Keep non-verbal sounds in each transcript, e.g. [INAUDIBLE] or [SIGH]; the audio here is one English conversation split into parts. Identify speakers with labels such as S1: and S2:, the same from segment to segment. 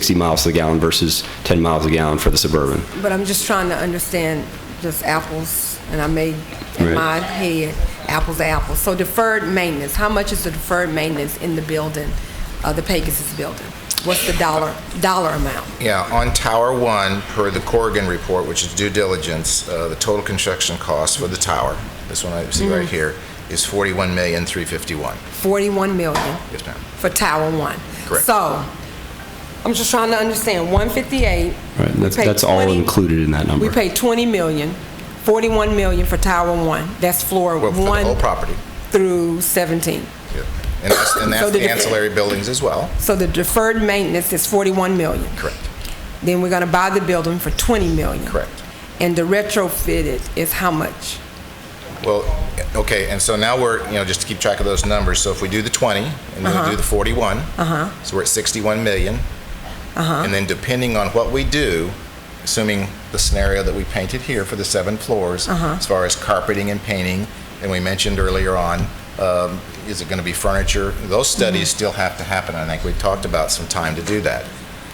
S1: 60 miles to the gallon versus 10 miles a gallon for the Suburban.
S2: But I'm just trying to understand just apples, and I made in
S1: Right.
S2: my head apples to apples. So deferred maintenance, how much is the deferred maintenance in the building, uh, the Pegasus building? What's the dollar, dollar amount?
S3: Yeah, on Tower One, per the Corrigan report, which is due diligence, uh, the total construction cost for the tower, this one I see right here, is forty-one million, three fifty-one.
S2: 41 million
S3: Yes, ma'am.
S2: for Tower 1.
S3: Correct.
S2: So, I'm just trying to understand, 158.
S1: Right, and
S2: we
S1: that's-
S2: paid
S1: that's all
S2: 20
S1: included in that number.
S2: We paid 20 million, 41 million for Tower 1. That's floor
S3: Well, for the
S2: 1
S3: whole property.
S2: through 17.
S3: Yeah. And that's, and
S2: So
S3: that's
S2: the
S3: the
S2: def-
S3: ancillary buildings as well.
S2: So the deferred maintenance is 41 million.
S3: Correct.
S2: Then we're going to buy the building for 20 million.
S3: Correct.
S2: And the retrofit is- is how much?
S3: Well, okay, and so now we're, you know, just to keep track of those numbers, so if we do the 20, and then
S2: Uh-huh.
S3: we do the 41, so we're at 61 million.
S2: Uh-huh.
S3: And then depending on what we do, assuming the scenario that we painted here for the seven floors,
S2: Uh-huh.
S3: as far as carpeting and painting, and we mentioned earlier on, um, is it going to be furniture? Those
S2: Mm-hmm.
S3: studies still have to happen, I think we talked about some time to do that.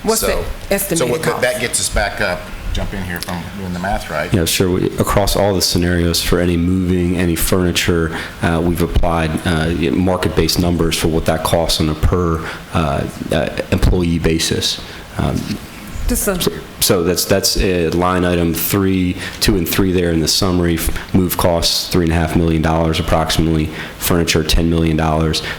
S2: What's the
S3: So-
S2: estimated
S3: So what-
S2: cost?
S3: that gets us back up, jump in here if I'm doing the math right.
S1: Yeah, sure. We- Across all the scenarios for any moving, any furniture, uh, we've applied uh, you know, market-based numbers for what that costs on a per uh, uh, employee basis. Um,
S2: Just a-
S1: So that's, that's uh, line item three, two and three there in the summary. F- Move costs, $3.5 million approximately, furniture, $10 million.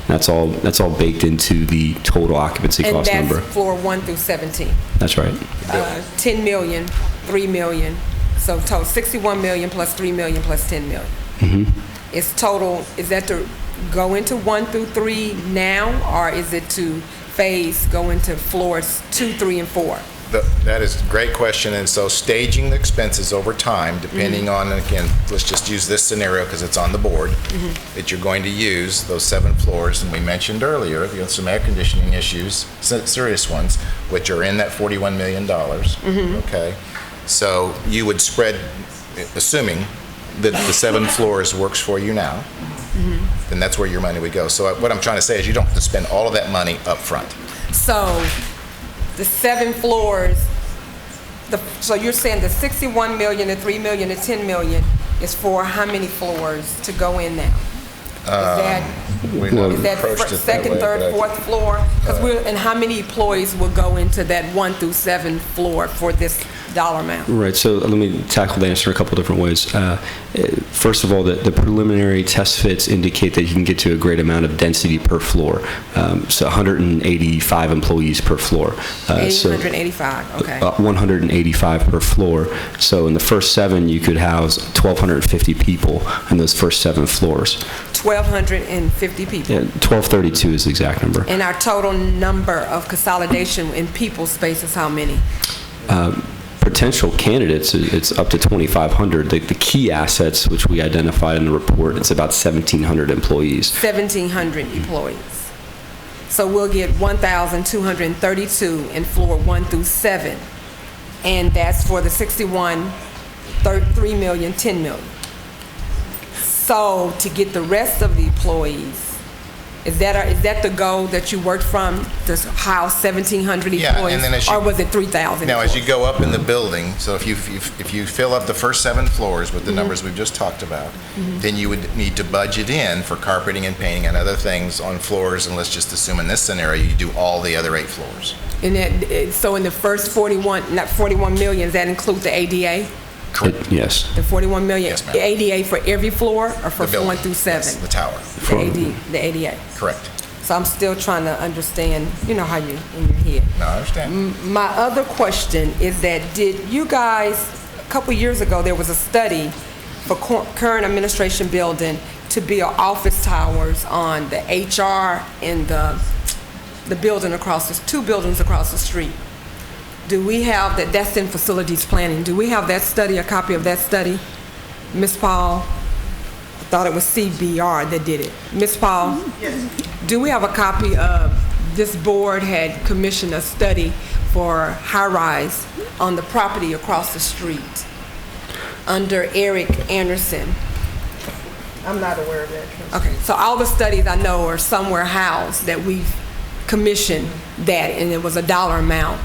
S1: That's all, that's all baked into the total occupancy
S2: And
S1: cost number.
S2: that's floor 1 through 17.
S1: That's right.
S2: uh, 10 million, 3 million, so total 61 million plus 3 million plus 10 million. It's total, is that to go into 1 through 3 now, or is it to phase, go into floors 2, 3, and 4?
S3: Th- That is a great question, and so staging the expenses over time, depending
S2: Mm-hmm.
S3: on, and again, let's just use this scenario because it's on the board,
S2: Mm-hmm.
S3: that you're going to use those seven floors, and we mentioned earlier, you have some air conditioning issues, se- serious ones, which are in that $41 million.
S2: Mm-hmm.
S3: Okay? So you would spread, assuming that the
S2: [LAUGHS]
S3: seven floors works for you now,
S2: Mm-hmm.
S3: then that's where your money would go. So what I'm trying to say is you don't have to spend all of that money upfront.
S2: So the seven floors, the, so you're saying the 61 million, the 3 million, the 10 million is for how many floors to go in now? Is that?
S3: Um, We haven't
S2: Is that
S3: approached
S2: fir-
S3: it that way,
S2: second,
S3: but I- uh,
S2: third, fourth floor? Because we're, and how many employees will go into that one through seven floor for this dollar amount?
S1: Right, so let me tackle the answer a couple different ways. Uh, eh, First of all, the the preliminary test fits indicate that you can get to a great amount of density per floor, Um, so 185 employees per floor. Uh, so-
S2: 885, okay.
S1: uh, 185 per floor. So in the first seven, you could house 1,250 people in those first seven floors.
S2: 1,250
S1: Yeah,
S2: people.
S1: 1,232 is the exact number.
S2: And our total number of consolidation in people space is how many?
S1: potential candidates, i- it's up to 2,500. The, the key assets, which we identified in the report, it's about 1,700 employees.
S2: 1,700 employees. So we'll get 1,232 in floor one through seven. And that's for the 61, thir- 3 million, 10 million. So to get the rest of the employees, is that, our- is that the goal that you worked from, to s- house 1,700
S3: Yeah, and then
S2: employees?
S3: as you-
S2: Or was it 3,000?
S3: Now, as you
S2: employees?
S3: go up in the building, so if you, if if you fill up the first seven floors with the
S2: Mm-hmm.
S3: numbers we've just talked about, then you would need to budget in for carpeting and painting and other things on floors, and let's just assume in this scenario, you do all the other eight floors.
S2: And that, it- so in the first 41, not 41 million, does that include the ADA?
S1: It- Yes.
S2: The 41 million?
S3: Yes, ma'am.
S2: ADA for every floor or for
S3: The building.
S2: one through
S3: Yes,
S2: seven?
S3: The tower,
S2: The AD, the ADA.
S3: correct.
S2: So I'm still trying to understand, you know, how you, in your head.
S3: No, I
S2: Mm-hmm.
S3: understand.
S2: My other question is that did you guys, a couple years ago, there was a study for cor- current administration building to build office towers on the HR and the, the building across, the two buildings across the street. Do we have that, that's in facilities planning, do we have that study, a copy of that study? Ms. Paul, I thought it was CBR that did it. Ms. Paul? Do we have a copy of, this board had commissioned a study for high-rise on the property across the street under Eric Anderson. I'm not aware of that. Okay, so all the studies I know are somewhere housed that we've commissioned that, and it was a dollar amount